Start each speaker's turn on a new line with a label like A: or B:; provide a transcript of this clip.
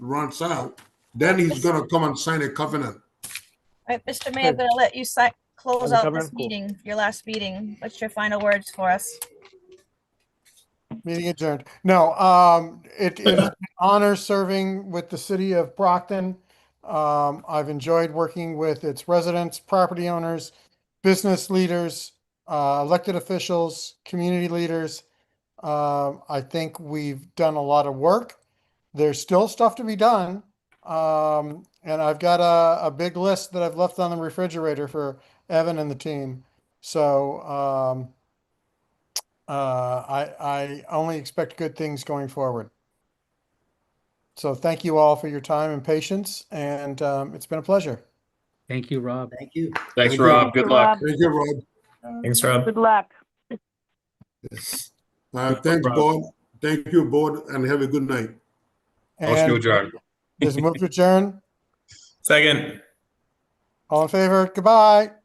A: runs out, then he's gonna come and sign a covenant.
B: All right, Mr. Mayor, I'm gonna let you si- close
C: Madam
B: out
C: Governor,
B: this
C: cool.
B: meeting, your last meeting. What's your final words for us?
D: Meeting adjourned. No, um, it is an honor serving with the city of Brockton. Um, I've enjoyed working with its residents, property owners, business leaders, uh, elected officials, community leaders. Um, I think we've done a lot of work. There's still stuff to be done. Um, and I've got a, a big list that I've left on the refrigerator for Evan and the team. So, um, uh, I, I only expect good things going forward. So thank you all for your time and patience, and um, it's been a pleasure.
E: Thank you, Rob.
F: Thank you.
G: Thanks,
A: Thank you.
G: Rob. Good luck.
A: Thank you, Rob.
H: Thanks, Rob.
I: Good luck.
A: Uh, thanks,
G: Rob.
A: board. Thank you, board, and have a good night.
G: Motion to
D: And
G: adjourn.
D: there's a move to adjourn.
H: Second.
D: All in favor? Goodbye.